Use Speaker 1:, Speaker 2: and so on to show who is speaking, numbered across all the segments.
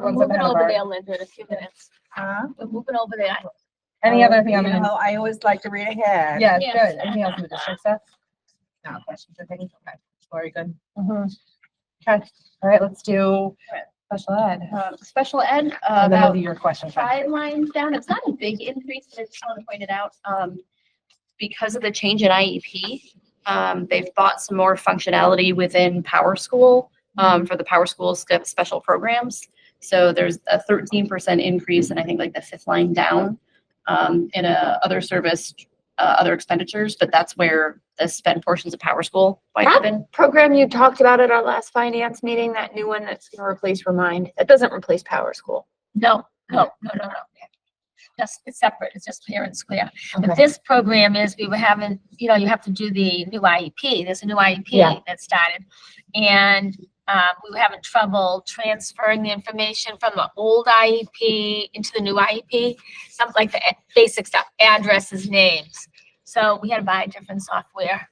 Speaker 1: We're
Speaker 2: ones that
Speaker 1: moving
Speaker 2: have
Speaker 1: over
Speaker 2: our-
Speaker 1: there, Linda, in a few minutes.
Speaker 2: Huh?
Speaker 1: We're moving over there.
Speaker 2: Any
Speaker 3: Uh-huh. Oh,
Speaker 2: other thing on
Speaker 3: you
Speaker 2: the,
Speaker 3: know, I always like to read ahead.
Speaker 2: yeah,
Speaker 1: Yeah.
Speaker 2: good. Anything else in the district stuff? No questions or things? Okay, very good. Okay, all right, let's do
Speaker 1: Right.
Speaker 2: special ed.
Speaker 1: Um, Special ed, uh,
Speaker 2: And then we'll
Speaker 1: about
Speaker 2: do your questions.
Speaker 1: five lines down. It's not a big increase, but I just want to point it out. Um, because of the change in IEP, um, they've bought some more functionality within Power School, um, for the Power School sc- special programs. So there's a thirteen percent increase and I think like the fifth line down, um, in a other service, uh, other expenditures, but that's where the spend portions of Power School might have been.
Speaker 4: program you talked about at our last finance meeting, that new one that's gonna replace Remind, that doesn't replace Power School.
Speaker 5: No, no, no, no, no. That's, it's separate, it's just parent square. But
Speaker 2: Okay.
Speaker 5: this program is, we were having, you know, you have to do the new IEP, there's a new
Speaker 2: Yeah.
Speaker 5: IEP that started. And, um, we were having trouble transferring the information from the old IEP into the new IEP. Something like the a- basic stuff, addresses, names. So we had to buy different software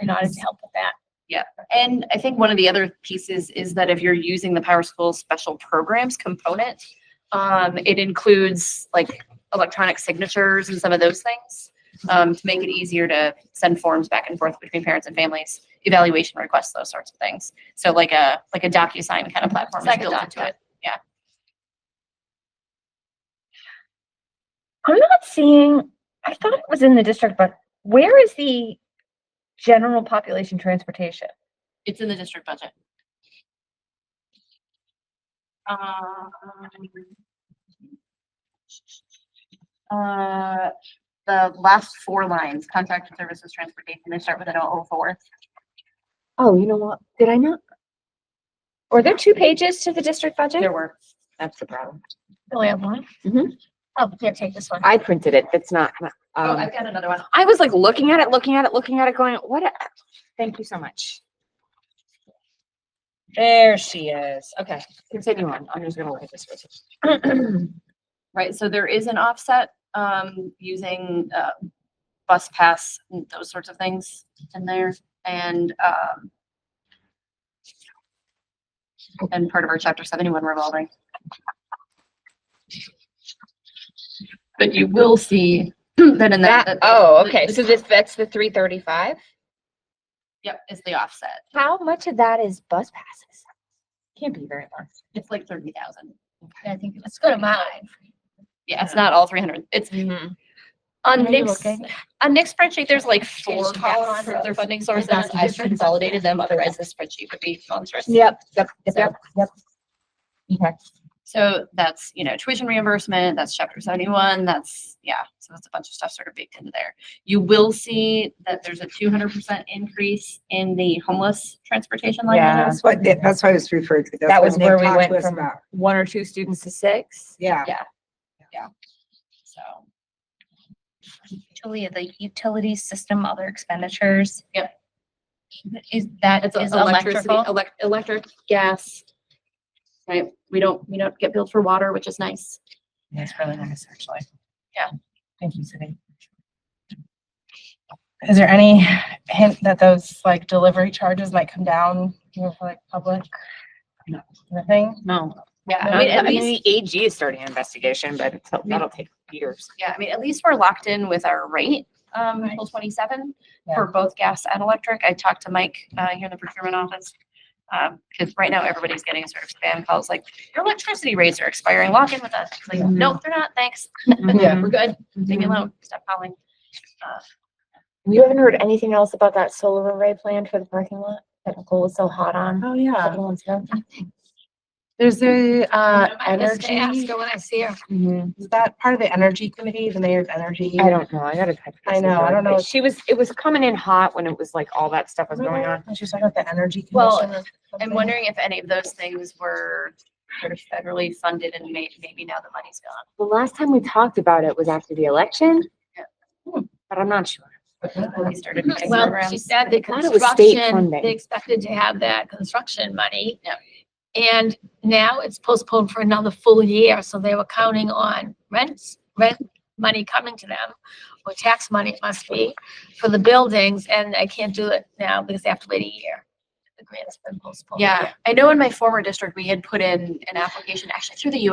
Speaker 5: in order to help with that.
Speaker 1: And I think one of the other pieces is that if you're using the PowerSchool Special Programs component, um, it includes like electronic signatures and some of those things, um, to make it easier to send forms back and forth between parents and families, evaluation requests, those sorts of things. So like a, like a DocuSign kind of platform is
Speaker 5: Like a
Speaker 1: built into
Speaker 5: docu.
Speaker 1: it.
Speaker 6: I'm not seeing, I thought it was in the district, but where is the general population transportation?
Speaker 1: It's in the district budget. Um, Uh, the last four lines, contracted services, transportation, they start with an O four.
Speaker 6: Oh, you know what? Did I not? Were there two pages to the district budget?
Speaker 1: There were.
Speaker 3: That's the problem.
Speaker 5: Really, I one?
Speaker 6: Mhm.
Speaker 5: Oh, here, take this one.
Speaker 3: I printed it. That's not, my-
Speaker 1: Oh,
Speaker 3: um,
Speaker 1: I've got another one.
Speaker 6: I was like looking at it, looking at it, looking at it, going, what? a-
Speaker 3: thank you so much.
Speaker 2: There she is. Okay.
Speaker 3: Continue on. I'm just gonna look at this. for a second.
Speaker 1: Right, so there is an offset, um, using, uh, bus pass, and those sorts of things in there, and, um, and part of our chapter seventy-one revolving. But you will see that in that.
Speaker 6: That, oh, okay. So this, that's the three thirty-five?
Speaker 1: Yep, is the offset.
Speaker 6: How much of that is bus passes? Can't be very much.
Speaker 1: It's like thirty thousand.
Speaker 5: I think, let's go to mine.
Speaker 1: Yeah, it's not all three hundred. It's on
Speaker 5: Are you
Speaker 1: Nick's,
Speaker 5: okay?
Speaker 1: on Nick's spreadsheet, there's like four
Speaker 5: Education, yeah.
Speaker 1: columns for their funding sources. I've consolidated them, otherwise this spreadsheet would be monstrous.
Speaker 2: Yep, yep,
Speaker 1: yep,
Speaker 2: yep,
Speaker 1: yep,
Speaker 2: yep. Okay.
Speaker 1: So that's, you know, tuition reimbursement, that's chapter seventy-one, that's, yeah, so that's a bunch of stuff sort of baked into there. You will see that there's a two hundred percent increase in the homeless transportation line. item.
Speaker 3: That's what, that's why I was referred to. That's
Speaker 6: That
Speaker 3: what
Speaker 6: was
Speaker 3: Nick
Speaker 6: where we
Speaker 3: talked to
Speaker 6: went
Speaker 3: us
Speaker 6: from
Speaker 3: about.
Speaker 6: one or two students to six?
Speaker 3: Yeah.
Speaker 1: So,
Speaker 7: Julia, the utility system, other expenditures.
Speaker 1: Yep.
Speaker 7: Is that
Speaker 1: it's
Speaker 7: is
Speaker 1: electricity,
Speaker 7: electrical?
Speaker 1: elec- electric, gas. Right, we don't, we don't get billed for water, which is nice.
Speaker 2: That's really nice, actually.
Speaker 1: Yeah.
Speaker 2: Thank you, Cindy. Is there any hint that those like delivery charges might come down, you know, for like public?
Speaker 3: No.
Speaker 2: Nothing?
Speaker 3: No.
Speaker 1: Yeah. I
Speaker 3: I mean,
Speaker 1: mean,
Speaker 3: I
Speaker 1: at
Speaker 3: mean,
Speaker 1: least,
Speaker 3: the AG is starting an investigation, but it's-
Speaker 1: mean-
Speaker 3: that'll take years.
Speaker 1: yeah, I mean, at least we're locked in with our rate, um, until twenty-seven for both gas and electric. I talked to Mike, uh, here in the procurement office. Um, because right now everybody's getting sort of spam calls like, your electricity rates are expiring, lock in with us. It's Like, nope, they're not, thanks.
Speaker 5: Mm-hmm.
Speaker 2: Yeah.
Speaker 1: We're good. Leave me alone. Stop calling.
Speaker 4: You haven't heard anything else about that solar array plan for the parking lot that Nicole was so hot on?
Speaker 3: Oh,
Speaker 4: a
Speaker 3: yeah.
Speaker 4: couple months ago?
Speaker 2: There's the uh
Speaker 5: I was gonna ask
Speaker 2: energy, Mm-hmm.
Speaker 5: her when I see her.
Speaker 2: is that part of the energy committee, the mayor's energy?
Speaker 3: I don't know. I gotta. touch
Speaker 2: I
Speaker 3: base with
Speaker 2: know, I
Speaker 3: her,
Speaker 2: don't
Speaker 3: but
Speaker 2: know.
Speaker 3: She was, it was coming in hot when it was like all that stuff was going on.
Speaker 2: She's talking about the energy.
Speaker 1: Well,
Speaker 2: commission or
Speaker 1: I'm
Speaker 2: something.
Speaker 1: wondering if any of those things were sort of federally funded and may, maybe now the money's gone.
Speaker 3: The last time we talked about it was after the election.
Speaker 1: Yeah.
Speaker 3: But I'm not sure.
Speaker 1: when we started doing
Speaker 5: Well, she
Speaker 1: programs.
Speaker 5: said the
Speaker 3: thought it was state
Speaker 5: construction,
Speaker 3: funding.
Speaker 5: they expected to have that construction money. And now it's postponed for another full year, so they were counting on rents, rent money coming to them, or tax money it must be, for the buildings, and they can't do it now because they have to wait a year. The grant's been postponed.
Speaker 1: Yeah, I know in my former district, we had put in an application actually through the U